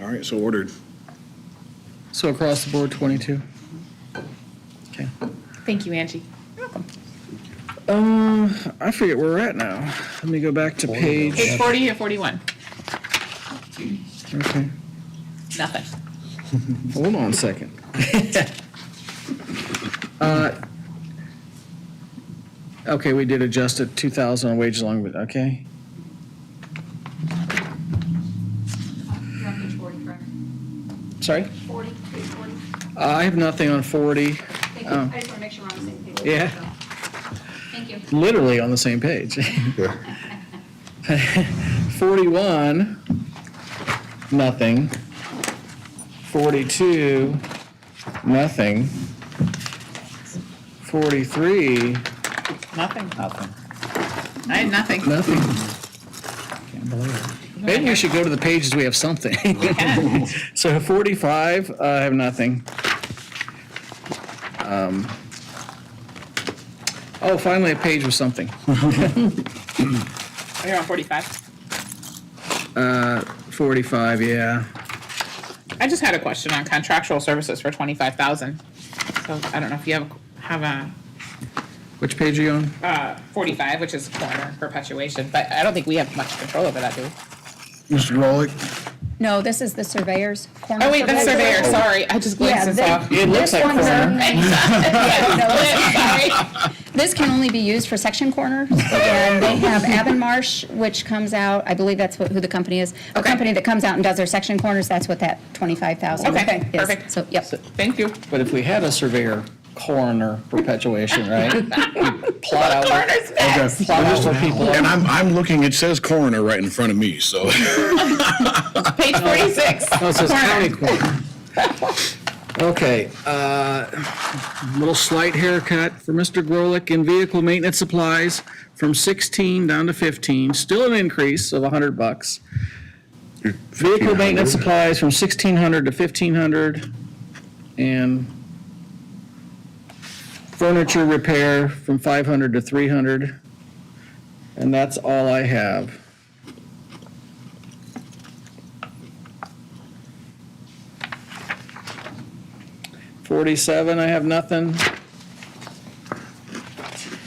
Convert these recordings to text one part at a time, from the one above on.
All right, so ordered. So across the board, 22. Okay. Thank you, Angie. Um, I forget where we're at now. Let me go back to page. Page 40 or 41? Okay. Nothing. Hold on a second. Uh, Okay, we did adjust it 2,000 on wages along with, okay. You're on page 40, correct? Sorry? 40, page 40? Uh, I have nothing on 40, Thank you. Oh. I just want to make sure we're on the same page. Yeah. Thank you. literally on the same page. Yeah. 41, nothing. 42, nothing. 43, Nothing. Nothing. I had nothing. nothing. Maybe we should go to the pages we have something. Yeah. So 45, uh, I have nothing. Um, Oh, finally a page with something. You're on 45. 45, yeah. I just had a question on contractual services for 25,000. So I don't know if you have, have a Which page are you on? uh, 45, which is corner perpetuation, but I don't think we have much control over that, do we? Mr. Grolick? No, this is the surveyor's corner. Oh, wait, that's surveyor. surveyor, sorry. I just glanced this Yeah, they- off. It looks This like one's corner. in- Yeah, sorry. This can only be used for section corners, and they have Avonmarsh, which comes out, I believe that's what- who the company is. The Okay. company that comes out and does their section corners, that's what that 25,000 is. Okay, perfect. So, yep. Thank you. But if we had a surveyor coroner perpetuation, right? we'd Plot out, where- Coroner's back. plot out where people And are. I'm, I'm looking, it says coroner right in front of me, so. Page 46. No, it says corner. county coroner. Okay, uh, little slight haircut for Mr. Grolick in vehicle maintenance supplies from 16 down to 15, still an increase of 100 bucks. Vehicle maintenance supplies from 1,600 to 1,500, and furniture repair from 500 to 300. And that's all I have. Forty-seven, I have nothing.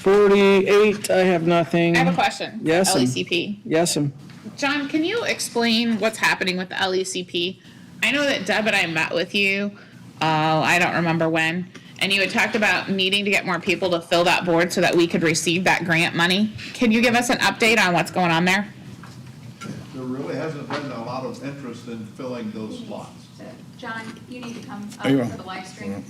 Forty-eight, I have nothing. I have a question. E for Yes, and- LECP. Yes, um, John, can you explain what's happening with the LECP? I know that Deb and I met with you, oh, I don't remember when, and you had talked about needing to get more people to fill that board so that we could receive that grant money. Can you give us an update on what's going on there? There really hasn't been a lot of interest in filling those slots. So, John, you need to come up There you are. for the live stream.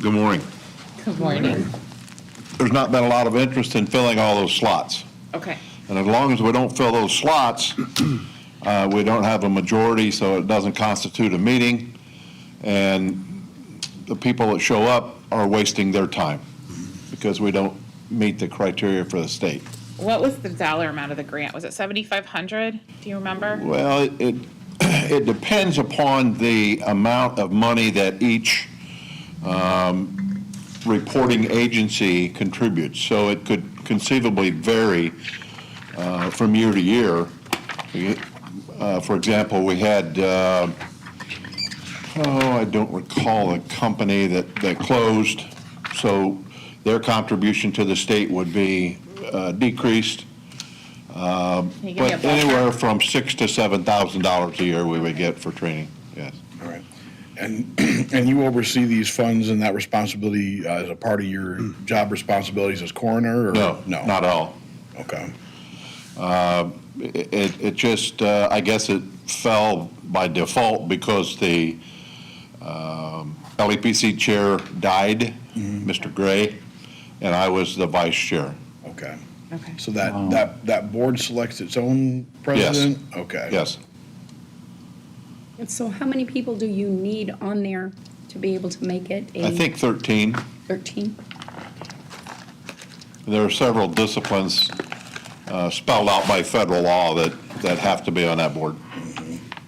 Good morning. Good morning. There's not been a lot of interest in filling all those slots. Okay. And as long as we don't fill those slots, uh, we don't have a majority, so it doesn't constitute a meeting. And the people that show up are wasting their time because we don't meet the criteria for the state. What was the dollar amount of the grant? Was it seventy-five hundred? Do you remember? Well, it- it, it depends upon the amount of money that each um, reporting agency contributes. So it could conceivably vary uh, from year to year. Uh, For example, we had, uh, oh, I don't recall the company that, that closed, so their contribution to the state would be uh, decreased. Can you give me a But ballpark? anywhere from six to seven thousand dollars a year we would get for training, yes. All right. And, and you oversee these funds and that responsibility uh, as a part of your job responsibilities as coroner or? Hmm. No, No. not at all. Okay. It, it- it just, uh, I guess it fell by default because the um, LEPC chair died, Mr. Gray, and I was the vice chair. Okay. Okay. So that, that, that board selects its own president? Okay. Yes, And so how many people do you need on there to be able to make it a I think thirteen. 13? There are several disciplines uh, spelled out by federal law that, that have to be on that board.